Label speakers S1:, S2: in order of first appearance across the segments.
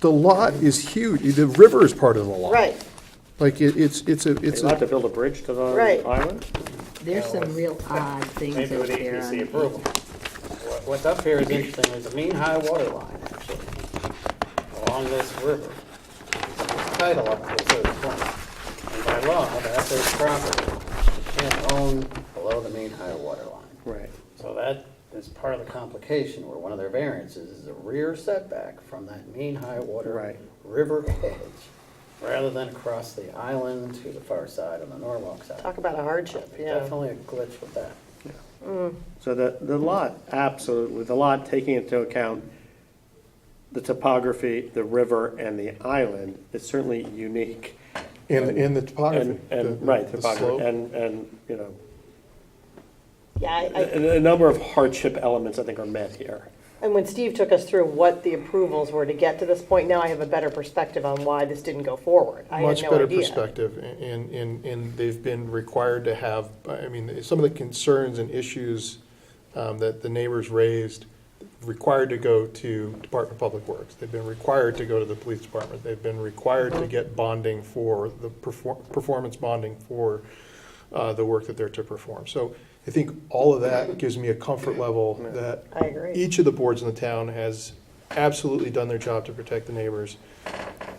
S1: the lot is huge, the river is part of the lot.
S2: Right,
S1: Like, it, it's, it's a,
S3: They
S1: it's
S3: allowed
S1: a,
S3: to build a bridge to the
S2: Right.
S3: island?
S4: There's some real odd things
S5: Maybe
S4: up
S5: with
S4: there.
S5: APC
S4: on-
S5: approval. What- What's up here is interesting, there's a mean high water line, actually, along this river. There's a Title up here, so it's one. And by law, that's their property, you can't own below the mean high water line.
S3: Right.
S5: So that is part of the complication, where one of their variances is a rear setback from that mean high water
S3: Right.
S5: river edge, rather than across the island to the far side on the Norwalk side.
S2: talk about a hardship, yeah.
S5: Definitely a glitch with that.
S3: So the, the lot, absolutely, the lot taking into account the topography, the river, and the island is certainly unique.
S1: and, and the topography.
S3: And,
S1: the-
S3: and, right,
S1: the
S3: topography,
S1: slope.
S3: and, and, you know,
S2: Yeah, I- I-
S3: a, a number of hardship elements, I think, are met here.
S2: and when Steve took us through what the approvals were to get to this point, now I have a better perspective on why this didn't go forward. I had
S1: Much
S2: no
S1: better
S2: idea.
S1: perspective, and, and, and they've been required to have, I mean, some of the concerns and issues um, that the neighbors raised, required to go to Department of Public Works, they've been required to go to the police department, they've been required to get bonding for, the perfor- performance bonding for uh, the work that they're to perform. So I think all of that gives me a comfort level that
S2: I agree.
S1: each of the boards in the town has absolutely done their job to protect the neighbors.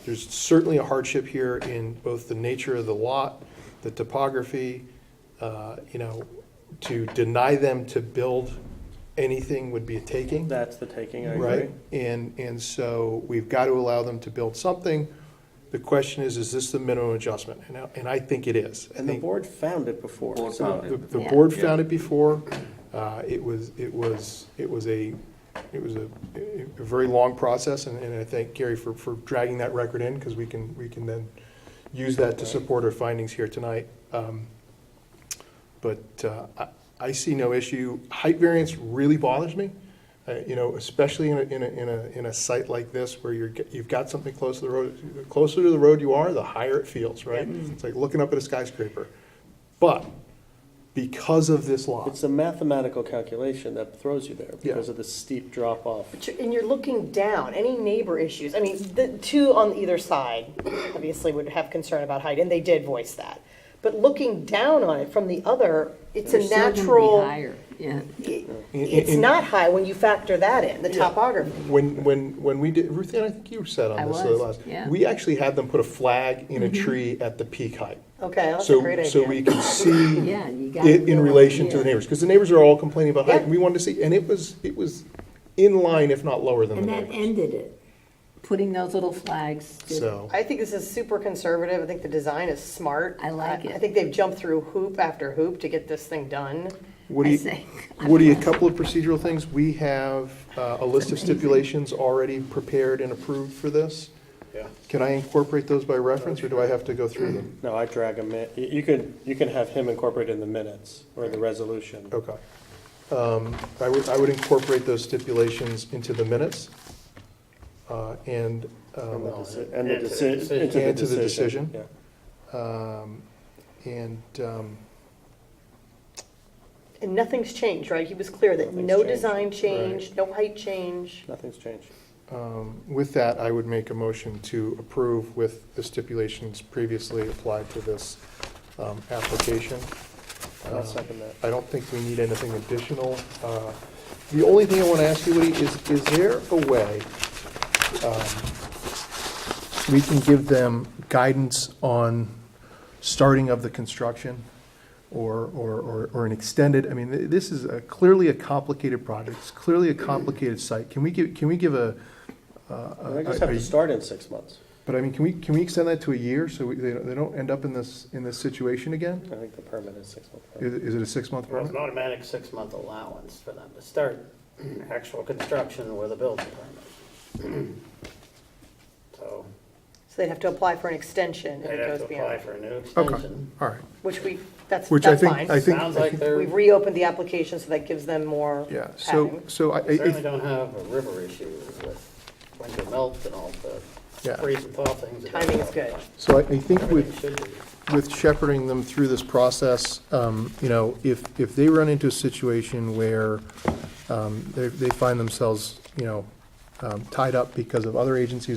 S1: There's certainly a hardship here in both the nature of the lot, the topography, uh, you know, to deny them to build anything would be a taking,
S3: That's the taking, I agree.
S1: right? And, and so we've got to allow them to build something. The question is, is this the minimum adjustment? And I, and I think it is. I
S3: And the
S1: think
S3: board found it before.
S6: Board
S3: so-
S6: found it.
S1: the, the
S4: Yeah.
S1: board
S6: Yeah.
S1: found it before. Uh, It was, it was, it was a, it was a, a very long process, and, and I thank Gary for, for dragging that record in, because we can, we can then use that to support our findings here tonight. Um, But uh, I, I see no issue. Height variance really bothers me, uh, you know, especially in a, in a, in a, in a site like this, where you're, get- you've got something close to the road. The Closer to the road you are, the higher it feels, right? It's like looking up at a skyscraper. But because of this lot.
S3: It's a mathematical calculation that throws you there because
S1: Yeah.
S3: of the steep drop off.
S2: But you're- And you're looking down, any neighbor issues, I mean, the two on either side obviously would have concern about height, and they did voice that. But looking down on it from the other, it's a
S4: They're still gonna be
S2: natural.
S4: higher, Yeah.
S2: it-
S1: In-
S2: It's
S1: in-
S2: not high when you factor that in, the topography.
S1: When, when, when we did, Ruth Ann, I think you sat
S4: I
S1: on this
S4: was,
S1: last.
S4: yeah. Mm-hmm.
S1: We actually had them put a flag in a tree at the peak height.
S2: Okay, that's a
S1: So-
S2: great idea.
S1: So we could see
S4: Yeah, you got
S1: it in
S4: the-
S1: relation to the
S4: yeah.
S1: neighbors, because the neighbors are all complaining about height,
S2: Yeah.
S1: and we wanted to see, and it was, it was in line, if not lower than the
S4: And that
S1: neighbors.
S4: ended it. Putting those little flags. did-
S1: So,
S2: I think this is super conservative. I think the design is smart.
S4: I like
S2: I
S4: it.
S2: think they've jumped through hoop after hoop to get this thing done.
S1: what do
S4: I
S1: you,
S4: say,
S1: what do you, a couple of procedural things, we have uh, a list of stipulations already prepared and approved for this.
S5: Yeah.
S1: Can I incorporate those by reference, or do I have to go through them?
S3: No, I drag him in. You- You could, you can have him incorporate in the minutes or the resolution.
S1: Okay. Um, I would, I would incorporate those stipulations into the minutes, uh, and,
S3: And the
S1: um,
S3: deci- And the
S5: Into the
S3: decision.
S5: decision.
S1: And to the decision.
S3: Yeah.
S1: um, and, um,
S2: And nothing's changed, right? He was clear that no
S3: Nothing's
S2: design change, no height change.
S3: Nothing's changed.
S1: um, with that, I would make a motion to approve with the stipulations previously applied to this um, application.
S3: I'll
S1: Uh,
S3: second that.
S1: I don't think we need anything additional. Uh, The only thing I want to ask you, Woody, is, is there a way um, we can give them guidance on starting of the construction? Or, or, or- or an extended, I mean, th- this is a- clearly a complicated project, it's clearly a complicated site. Can we give, can we give a,
S3: And They just have
S1: I-
S3: to start in six months.
S1: but I mean, can we, can we extend that to a year so we- they don't- they don't end up in this, in this situation again?
S3: I think the permit is six months.
S1: Is is it a six-month
S5: Well, it's
S1: permit?
S5: an automatic six-month allowance for them to start actual construction with a building permit. So
S2: So they'd have to apply for an extension if
S5: they'd
S2: it goes
S5: have to apply
S2: beyond.
S5: for a new
S1: Okay,
S5: extension.
S1: all right.
S2: Which we, that's,
S1: Which I
S2: that's
S1: think, I
S2: fine.
S1: think.
S5: Sounds
S1: I
S5: like
S1: think-
S5: they're,
S2: We've
S5: they
S2: reopened the application, so that gives them more
S1: Yeah, so,
S2: padding.
S1: so I, I-
S5: certainly
S1: if-
S5: don't have a river issue with winter melt and all the
S1: Yeah.
S5: freeze and thaw things. that they
S2: Timing's
S5: have.
S2: good.
S1: so I I think
S5: Everything
S1: with,
S5: should be.
S1: with shepherding them through this process, um, you know, if, if they run into a situation where um, they, they find themselves, you know, um, tied up because of other agencies